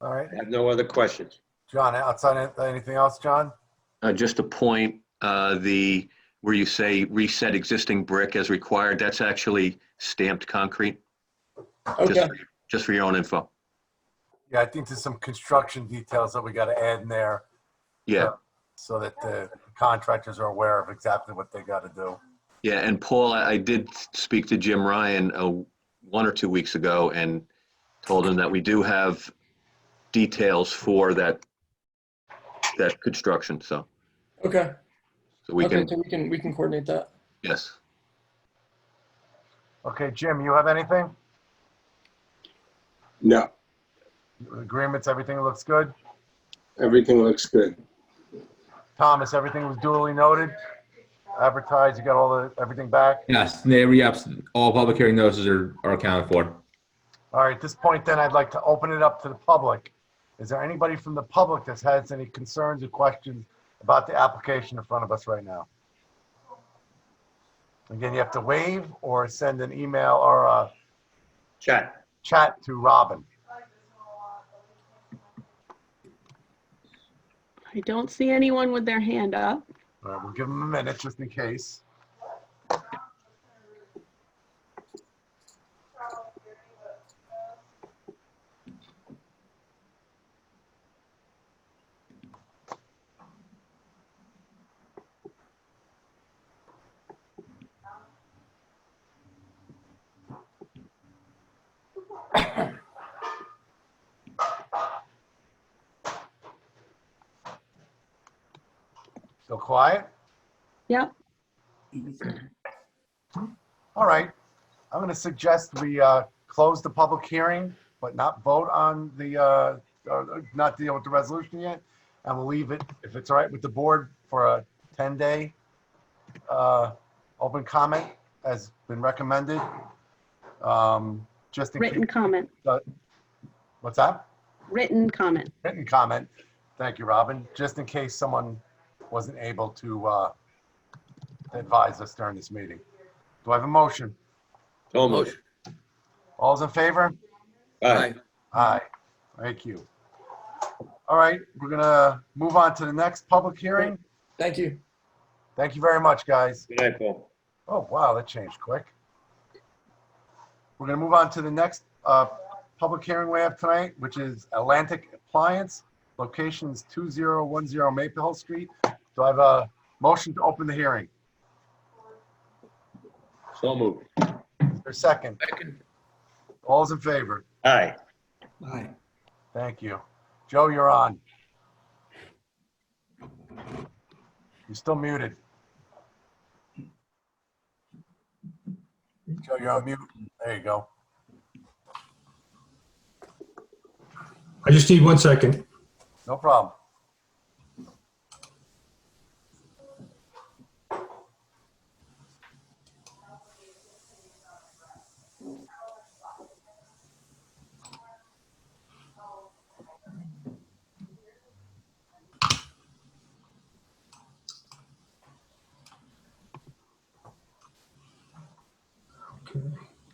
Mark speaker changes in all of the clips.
Speaker 1: All right,
Speaker 2: I have no other questions.
Speaker 1: John, outside of anything else, John?
Speaker 3: Uh, Just a point, uh, the, where you say reset existing brick as required, that's actually stamped concrete, just
Speaker 2: Okay,
Speaker 3: for- just for your own info.
Speaker 1: Yeah, I think there's some construction details that we got to add in there Uh,
Speaker 3: Yeah,
Speaker 1: so that the contractors are aware of exactly what they got to do.
Speaker 3: yeah, and Paul, I I did speak to Jim Ryan uh, one or two weeks ago and told him that we do have details for that, that construction, so,
Speaker 4: Okay.
Speaker 3: so we
Speaker 4: okay,
Speaker 3: can,
Speaker 4: so we can we can coordinate that.
Speaker 3: yes.
Speaker 1: Okay, Jim, you have anything?
Speaker 2: no,
Speaker 1: Agreements, everything looks good?
Speaker 2: everything looks good.
Speaker 1: Thomas, everything was duly noted? Advertised, you got all the, everything back?
Speaker 5: Yes, they re-ups, all public hearing notices are, are accounted for.
Speaker 1: All right, at this point then, I'd like to open it up to the public. Is there anybody from the public that has any concerns or questions about the application in front of us right now? Again, you have to wave or send an email or a
Speaker 2: Chat,
Speaker 1: chat to Robin.
Speaker 6: I don't see anyone with their hand up.
Speaker 1: All right, we'll give them a minute just in case. Still quiet?
Speaker 6: Yep.
Speaker 1: All right, I'm going to suggest we uh, close the public hearing, but not vote on the, uh, or not deal with the resolution yet. And we'll leave it, if it's all right with the board, for a 10-day uh, open comment as been recommended. Um, Just in
Speaker 6: Written
Speaker 1: case,
Speaker 6: comment,
Speaker 1: what's that?
Speaker 6: written comment.
Speaker 1: Written comment. Thank you, Robin. Just in case someone wasn't able to uh, advise us during this meeting. Do I have a motion?
Speaker 2: so motion.
Speaker 1: All's in favor?
Speaker 2: Aye.
Speaker 1: Aye. Thank you. All right, we're gonna move on to the next public hearing.
Speaker 4: Thank you.
Speaker 1: Thank you very much, guys.
Speaker 2: Good night, Paul.
Speaker 1: Oh, wow, that changed quick. We're gonna move on to the next uh, public hearing we have tonight, which is Atlantic Appliance, locations 2010 Maple Hill Street. Do I have a motion to open the hearing?
Speaker 2: So moved.
Speaker 1: Is there a second?
Speaker 4: Second.
Speaker 1: All's in favor?
Speaker 2: Aye.
Speaker 1: Thank you. Joe, you're on. You're still muted. Joe, you're on mute. There you go.
Speaker 7: I just need one second.
Speaker 1: No problem.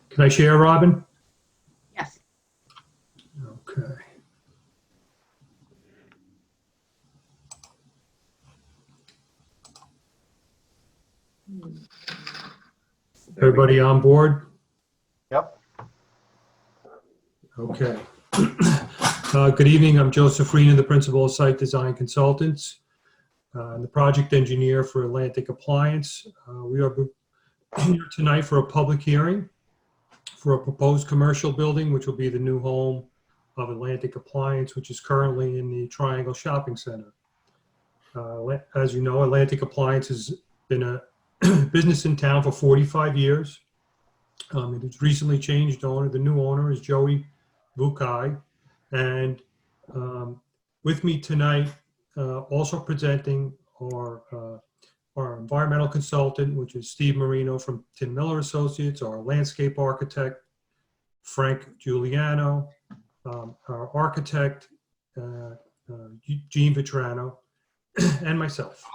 Speaker 7: Can I share, Robin?
Speaker 6: Yes.
Speaker 7: Okay. Everybody on board?
Speaker 1: Yep.
Speaker 7: Okay. Uh, Good evening, I'm Joseph Reena, the Principal of Site Design Consultants, uh, and the Project Engineer for Atlantic Appliance. Uh, We are here tonight for a public hearing for a proposed commercial building, which will be the new home of Atlantic Appliance, which is currently in the Triangle Shopping Center. Uh, la- As you know, Atlantic Appliance has been a business in town for 45 years. Um, It has recently changed owner. The new owner is Joey Bukai. And um, with me tonight, uh, also presenting our, uh, our environmental consultant, which is Steve Marino from Tim Miller Associates, our landscape architect, Frank Giuliano, um, our architect, uh, uh, Gene Vitrano, and myself.